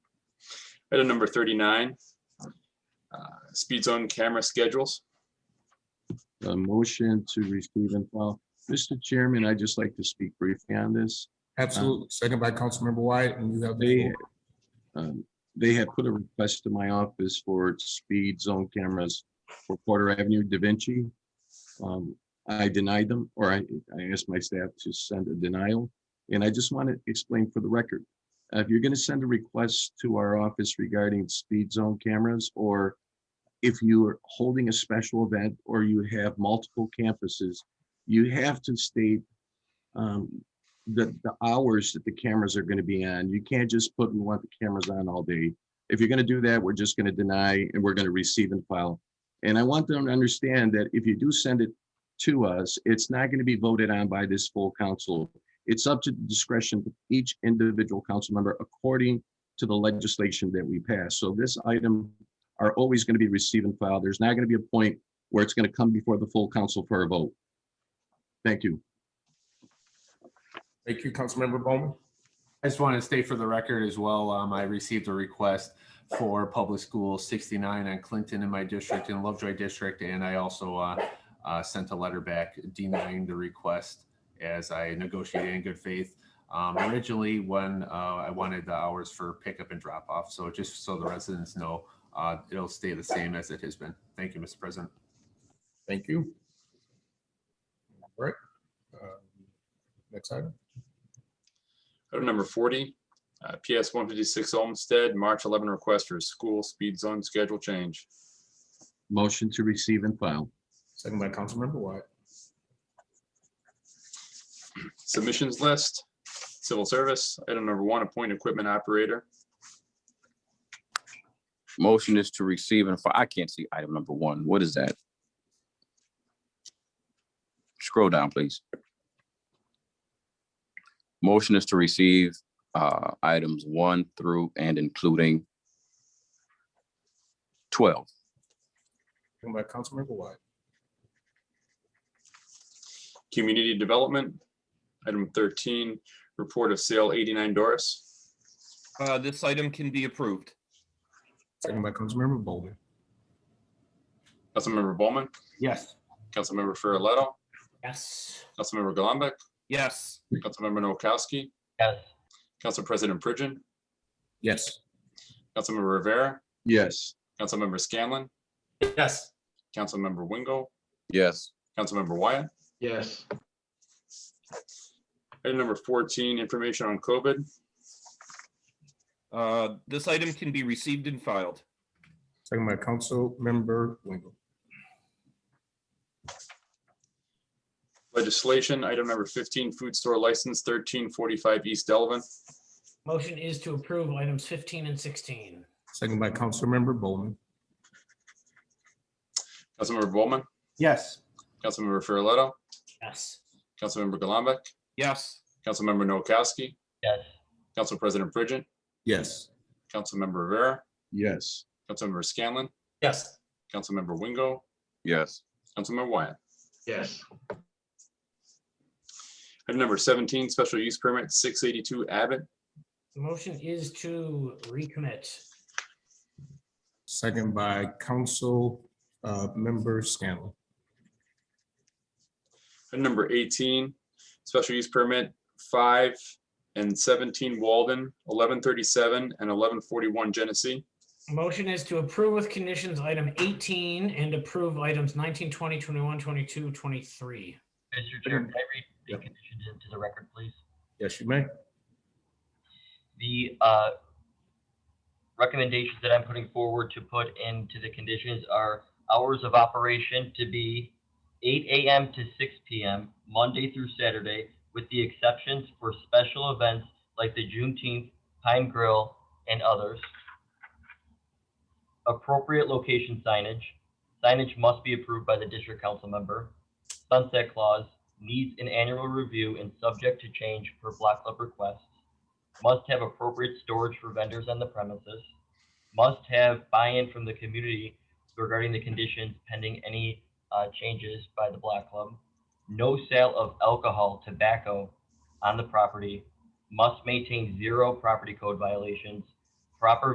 Item number thirty-nine, uh, speed zone camera schedules. A motion to receive and file. Mr. Chairman, I'd just like to speak briefly on this. Absolutely. Second by Councilmember Wyatt, and you have the They, floor. um, they had put a request to my office for speed zone cameras for Porter Avenue, Da Vinci. Um, I denied them, or I, I asked my staff to send a denial. And I just want to explain for the record, uh, if you're going to send a request to our office regarding speed zone cameras, or if you are holding a special event or you have multiple campuses, you have to state um, the, the hours that the cameras are gonna be on. You can't just put, we want the cameras on all day. If you're gonna do that, we're just gonna deny and we're gonna receive and file. And I want them to understand that if you do send it to us, it's not gonna be voted on by this full council. It's up to the discretion of each individual council member according to the legislation that we pass. So this item are always gonna be receive and file. There's not gonna be a point where it's gonna come before the full council for a vote. Thank you. Thank you, Councilmember Bowman. I just want to state for the record as well, um, I received a request for Public School 69 on Clinton in my district, in Lovejoy District, and I also uh, uh, sent a letter back denying the request as I negotiated in good faith. Um, Originally, when uh, I wanted the hours for pickup and drop off, so just so the residents know, uh, it'll stay the same as it has been. Thank you, Mr. President. Thank you. All right. Uh, Next item. Item number forty, uh, PS one fifty-six Olmsted, March eleven request for a school speed zone schedule change. Motion to receive and file. Second by Councilmember Wyatt. Submissions list, civil service, item number one, appoint equipment operator. Motion is to receive and file. I can't see item number one. What is that? Scroll down, please. Motion is to receive uh, items one through and including twelve. Second by Councilmember Wyatt. Community development, item thirteen, report of sale eighty-nine Doris. Uh, this item can be approved. Second by Councilmember Bowman. Councilmember Bowman, Yes. Councilmember Farrelletto, Yes. Councilmember Golumback, Yes. Councilmember Noakowski. Yes. Council President Pridgen, Yes. Councilmember Rivera, Yes. Councilmember Scanlon, Yes. Councilmember Wingo, Yes. Councilmember Wyatt. yes, Item number fourteen, information on COVID. Uh, this item can be received and filed. Second by Councilmember Wingo. Legislation, item number fifteen, food store license thirteen forty-five East Delvin. Motion is to approve items fifteen and sixteen. Second by Councilmember Bowman. Councilmember Bowman, Yes. Councilmember Farrelletto, Yes. Councilmember Golumback, Yes. Councilmember Noakowski. Yes. Council President Pridgen, Yes. Councilmember Rivera, Yes. Councilmember Scanlon, Yes. Councilmember Wingo, Yes. Councilmember Wyatt. yes, Item number seventeen, special use permit six eighty-two Abbott. Motion is to recommit. Second by Council uh, Member Scanlon. Item number eighteen, special use permit five and seventeen Walden, eleven thirty-seven and eleven forty-one Genesee. Motion is to approve with conditions item eighteen and approve items 19, 20, 21, 22, 23. Mr. Chair, can I read the conditions into the record, please? Yes, you may. The uh, recommendations that I'm putting forward to put into the conditions are hours of operation to be eight AM to six PM, Monday through Saturday, with the exceptions for special events like the Juneteenth, Pine Grill, and others. Appropriate location signage. Signage must be approved by the district council member. Sunset clause needs an annual review and subject to change per block club request must have appropriate storage for vendors on the premises, must have buy-in from the community regarding the conditions pending any uh, changes by the Black Club, no sale of alcohol, tobacco on the property, must maintain zero property code violations, proper